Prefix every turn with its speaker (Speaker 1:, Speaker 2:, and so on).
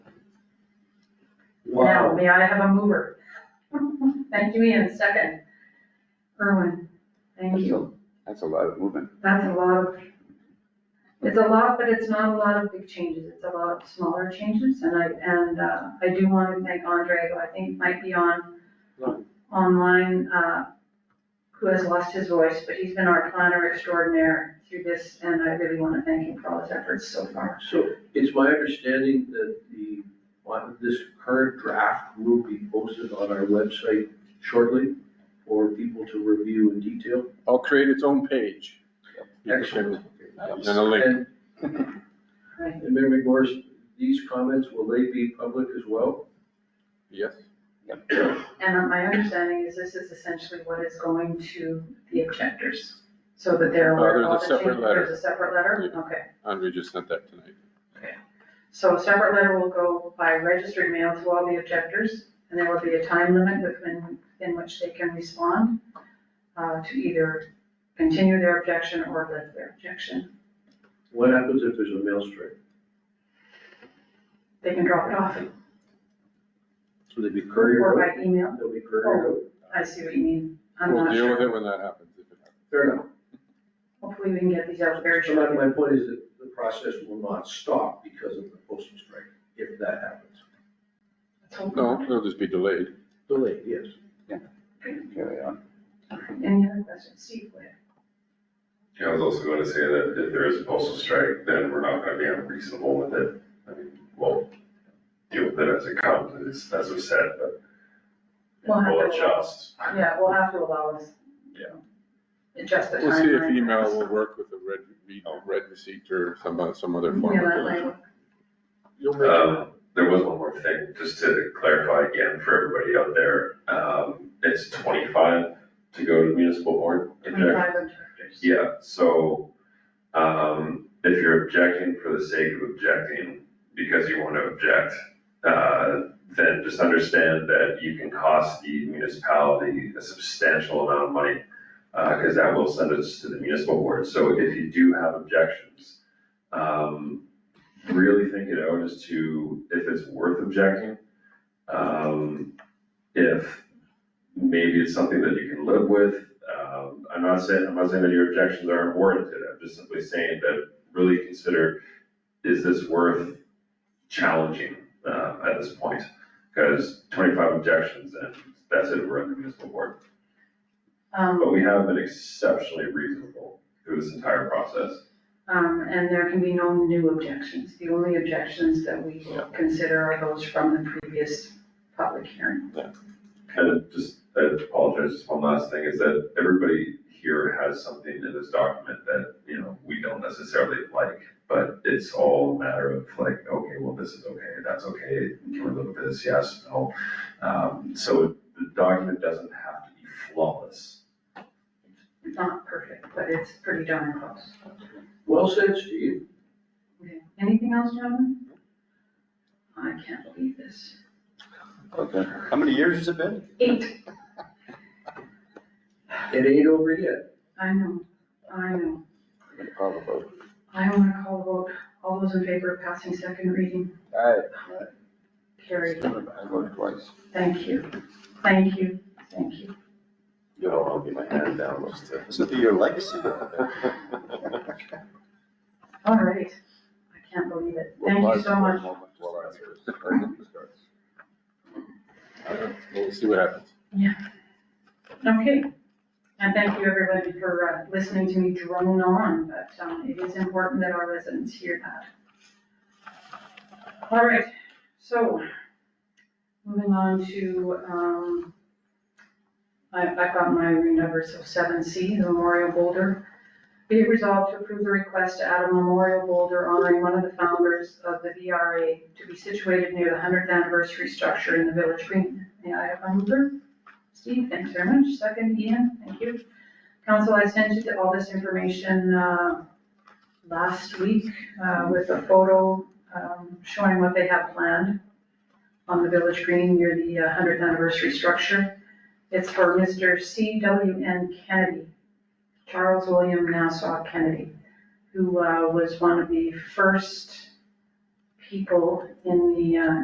Speaker 1: we ought to have a mover. Thank you, Ian, second. Erwin, thank you.
Speaker 2: That's a lot of movement.
Speaker 1: That's a lot of, it's a lot, but it's not a lot of big changes. It's a lot of smaller changes. And I, and uh, I do want to thank Andre, who I think might be on online, uh, who has lost his voice, but he's been our planner extraordinaire through this, and I really want to thank him for all his efforts so far.
Speaker 3: So it's my understanding that the, on this current draft will be posted on our website shortly for people to review in detail.
Speaker 4: I'll create its own page.
Speaker 3: Excellent.
Speaker 4: And a link.
Speaker 3: And and Mayor McMorris, these comments, will they be public as well?
Speaker 4: Yes.
Speaker 1: And uh, my understanding is this is essentially what is going to the objectors, so that they're aware of
Speaker 4: Uh,
Speaker 1: all
Speaker 4: there's a
Speaker 1: the
Speaker 4: separate
Speaker 1: changes.
Speaker 4: letter.
Speaker 1: There's a separate letter? Okay.
Speaker 4: Andre just sent that tonight.
Speaker 1: So a separate letter will go by registered mail to all the objectors, and there will be a time limit within, in which they can respond uh, to either continue their objection or lift their objection.
Speaker 3: What happens if there's a mail strike?
Speaker 1: They can drop it off
Speaker 3: Will they be
Speaker 1: or
Speaker 3: couriered out?
Speaker 1: by email.
Speaker 3: They'll be couriered out?
Speaker 1: I see what you mean. I'm
Speaker 4: We'll
Speaker 1: not
Speaker 4: deal with
Speaker 1: sure.
Speaker 4: it when that happens. if it happens.
Speaker 3: Fair enough.
Speaker 1: Hopefully we can get these out very
Speaker 3: So my,
Speaker 1: shortly.
Speaker 3: my point is that the process will not stop because of the postal strike, if that happens.
Speaker 1: Let's hope not.
Speaker 4: No, it'll just be delayed.
Speaker 3: Delayed, yes.
Speaker 2: Carry on.
Speaker 1: Any other questions? Steve, go ahead.
Speaker 5: Yeah, I was also gonna say that if there is a postal strike, then we're not gonna be unreasonable with it. I mean, we'll deal with it as it comes, as- as we said, but
Speaker 1: We'll have
Speaker 5: we'll
Speaker 1: to-
Speaker 5: adjust.
Speaker 1: Yeah, we'll have to allow us.
Speaker 5: Yeah.
Speaker 1: Adjust the timeline.
Speaker 4: We'll see if email will work with a red, re- red receipt or some, uh, some other form
Speaker 1: Yeah, that
Speaker 4: of.
Speaker 1: might
Speaker 4: delivery.
Speaker 1: work.
Speaker 3: You'll make it.
Speaker 5: Um, there was one more thing, just to clarify again for everybody out there, um, it's twenty-five to go to municipal board. objection.
Speaker 1: Twenty-five objectors.
Speaker 5: Yeah, so, um, if you're objecting for the sake of objecting, because you wanna object, uh, then just understand that you can cost the municipality a substantial amount of money, uh, cause that will send us to the municipal board, so if you do have objections, um, really think it out as to if it's worth objecting. Um, if maybe it's something that you can live with. Um, I'm not saying, I'm not saying that your objections aren't warranted, I'm just simply saying that really consider, is this worth challenging, uh, at this point? Because twenty-five objections and that's it, we're at the municipal board.
Speaker 1: Um,
Speaker 5: But we have been exceptionally reasonable through this entire process.
Speaker 1: um, and there can be no new objections. The only objections that we will consider are those from the previous public hearing.
Speaker 5: And just, I apologize, just one last thing, is that everybody here has something in this document that, you know, we don't necessarily like, but it's all a matter of like, okay, well, this is okay, that's okay, can we look at this, yes, no. Um, so the document doesn't have to be flawless.
Speaker 1: It's not perfect, but it's pretty darn close.
Speaker 3: Well said, Steve.
Speaker 1: Okay. Anything else, gentlemen? I can't believe this.
Speaker 2: Okay. How many years has it been?
Speaker 1: Eight,
Speaker 3: It ain't over yet.
Speaker 1: I know, I know.
Speaker 2: Call the vote.
Speaker 1: I want to call a vote. All those in favor of passing second reading,
Speaker 2: Aye.
Speaker 1: carried.
Speaker 2: I voted twice.
Speaker 1: Thank you, thank you, thank you.
Speaker 5: You know, I'll get my hand down, let's do it.
Speaker 2: This will be your legacy.
Speaker 1: All right, I can't believe it. Thank you so much.
Speaker 4: I don't know. Uh, We'll see what happens.
Speaker 1: Okay, and thank you everybody for uh, listening to me drone on, but um, it is important that our residents hear that. All right, so moving on to, um, I- I've got my number, so seven C, the memorial boulder. Be it resolved to approve the request to add a memorial boulder honoring one of the founders of the VRA to be situated near the hundredth anniversary structure in the village green. May I have my mover? Steve, thanks very much. Second, Ian, thank you. Council, I sent you all this information uh, last week uh, with a photo um, showing what they have planned on the village green near the uh, 100th anniversary structure. It's for Mr. C.W.N. Kennedy, Charles William Nassau Kennedy, who uh, was one of the first people in the uh,